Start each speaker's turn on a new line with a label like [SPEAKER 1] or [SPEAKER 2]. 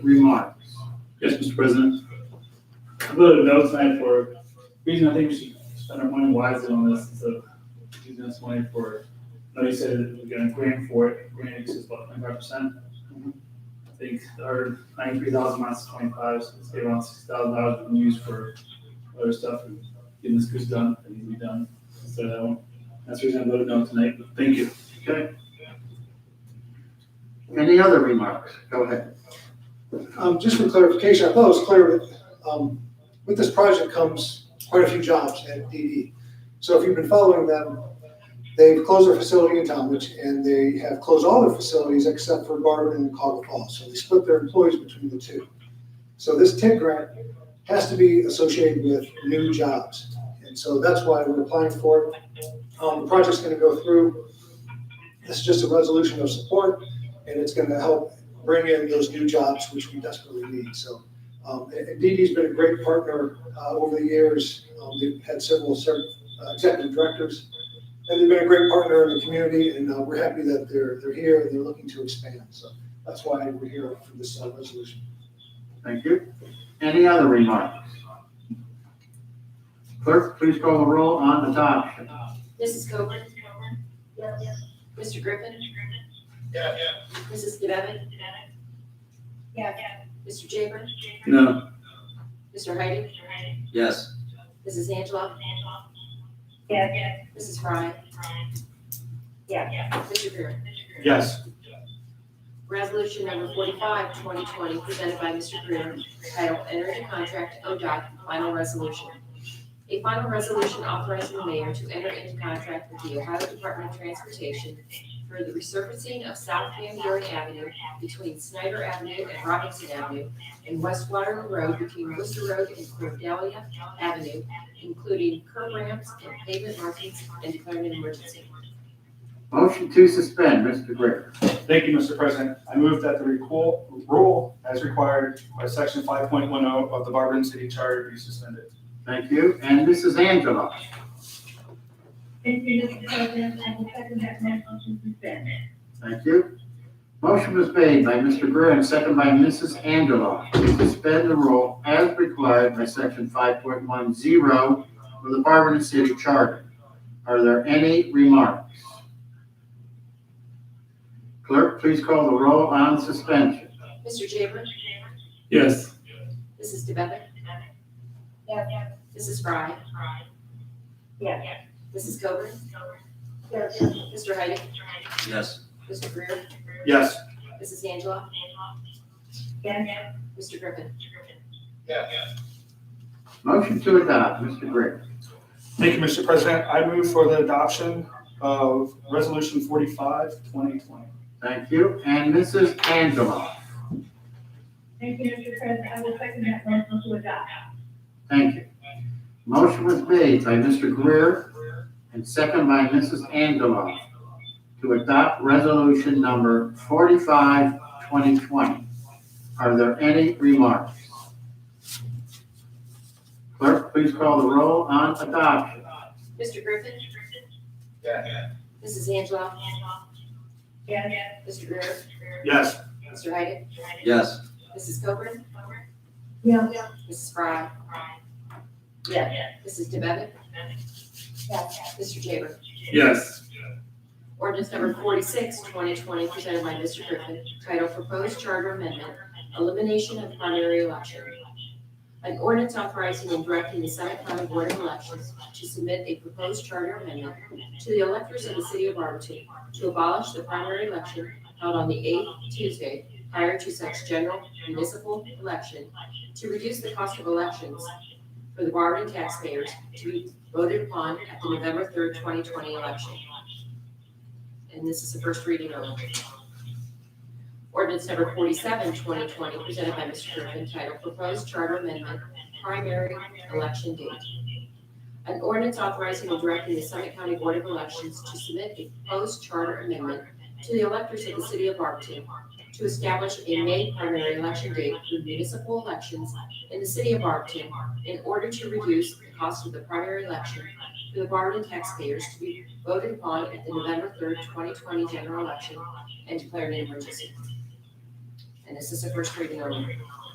[SPEAKER 1] remarks.
[SPEAKER 2] Yes, Mr. President.
[SPEAKER 1] I voted no tonight for, reason I think we should spend our money wisely on this is of using this money for, no, you said that we're gonna grant for it, grant is about twenty-five percent. I think our ninety-three thousand minus twenty-five, so it's around six thousand dollars we can use for other stuff and getting this goose done, that needs to be done. So that's the reason I voted no tonight, but thank you.
[SPEAKER 2] Okay. Any other remarks? Go ahead.
[SPEAKER 3] Um, just for clarification, I thought it was clear, but, um, with this project comes quite a few jobs at DD. So if you've been following them, they've closed their facility in Talmadge, and they have closed all their facilities except for Garvin and Caldwell Falls. So they split their employees between the two. So this TID grant has to be associated with new jobs. And so that's why we're applying for it. Um, the project's gonna go through. This is just a resolution of support, and it's gonna help bring in those new jobs, which we desperately need. So um, and- and DD's been a great partner uh, over the years. Um, They've had several cert- uh, executive directors, and they've been a great partner in the community, and uh, we're happy that they're, they're here and they're looking to expand. So that's why we're here for this uh, resolution.
[SPEAKER 2] Thank you. Any other remarks? Clerk, please call the roll on adoption.
[SPEAKER 4] Mrs. Coburn? Yes. Mr. Griffin?
[SPEAKER 5] Yeah, yeah.
[SPEAKER 4] Mrs. Devitt? Yeah. Mr. Jaber?
[SPEAKER 1] No,
[SPEAKER 4] Mr. Heidi?
[SPEAKER 2] Yes.
[SPEAKER 4] Mrs. Angela?
[SPEAKER 6] Yeah.
[SPEAKER 4] Mrs. Frye?
[SPEAKER 6] Yeah.
[SPEAKER 4] Mr. Griffin?
[SPEAKER 2] Yes.
[SPEAKER 4] Resolution number 45, 2020, presented by Mr. Greer, titled Enter into Contract ODOT Final Resolution. A final resolution authorizing the mayor to enter into contract with the Ohio Department of Transportation for the resurfacing of South Van Buren Avenue between Snyder Avenue and Robinson Avenue and West Waterloo Road between Worcester Road and Cordelia Avenue, including curb ramps and pavement markings, and declaring an emergency.
[SPEAKER 2] Motion to suspend, Mr. Greer.
[SPEAKER 7] Thank you, Mr. President. I move that the recall rule as required by section five point one oh of the Barberton City Charter be suspended.
[SPEAKER 2] Thank you. And Mrs. Angela.
[SPEAKER 6] Thank you, Mr. President, I will second that motion to suspend.
[SPEAKER 2] Thank you. Motion was made by Mr. Greer and second by Mrs. Angela to suspend the rule as required by section five point one zero of the Barberton City Charter. Are there any remarks? Clerk, please call the roll on suspension.
[SPEAKER 4] Mr. Jaber?
[SPEAKER 1] yes,
[SPEAKER 4] Mrs. DeBevick?
[SPEAKER 6] Yeah.
[SPEAKER 4] Mrs. Frye?
[SPEAKER 6] Yeah.
[SPEAKER 4] Mrs. Coburn?
[SPEAKER 6] Yes.
[SPEAKER 4] Mr. Heidi?
[SPEAKER 2] Yes.
[SPEAKER 4] Mr. Greer?
[SPEAKER 7] Yes.
[SPEAKER 4] Mrs. Angela?
[SPEAKER 6] Yeah.
[SPEAKER 4] Mr. Griffin?
[SPEAKER 5] Yeah, yeah.
[SPEAKER 2] Motion to adopt, Mr. Greer.
[SPEAKER 7] Thank you, Mr. President. I move for the adoption of resolution 45 2020.
[SPEAKER 2] Thank you. And Mrs. Angela.
[SPEAKER 6] Thank you, Mr. President, I will second that motion to adopt.
[SPEAKER 2] Thank you. Motion was made by Mr. Greer and second by Mrs. Angela to adopt resolution number 45, 2020. Are there any remarks? Clerk, please call the roll on adoption.
[SPEAKER 4] Mr. Griffin?
[SPEAKER 5] Yeah, yeah.
[SPEAKER 4] Mrs. Angela?
[SPEAKER 6] Yeah.
[SPEAKER 4] Mr. Greer?
[SPEAKER 7] Yes.
[SPEAKER 4] Mr. Heidi?
[SPEAKER 2] Yes.
[SPEAKER 4] Mrs. Coburn?
[SPEAKER 6] Yeah.
[SPEAKER 4] Mrs. Frye?
[SPEAKER 6] Yeah.
[SPEAKER 4] Mrs. DeBevick?
[SPEAKER 6] Yeah.
[SPEAKER 4] Mr. Jaber?
[SPEAKER 1] yes,
[SPEAKER 4] Ordinance number 46, 2020, presented by Mr. Griffin, titled Proposed Charter Amendment, Elimination of Primary Election. An ordinance authorizing and directing the Senate County Board of Elections to submit a proposed charter amendment to the electors of the city of Arlington to abolish the primary election held on the eighth Tuesday prior to such general municipal election, to reduce the cost of elections for the Barberton taxpayers to be voted upon at the November 3rd, 2020 election. And this is the first reading only. Ordinance number 47, 2020, presented by Mr. Griffin, titled Proposed Charter Amendment, Primary Election Date. An ordinance authorizing and directing the Summit County Board of Elections to submit a proposed charter amendment to the electors of the city of Barberton to establish a May primary election date for municipal elections in the city of Barberton in order to reduce the cost of the primary election for the Barberton taxpayers to be voted upon at the November third, twenty twenty general election and declared an emergency. And and this is a first reading only.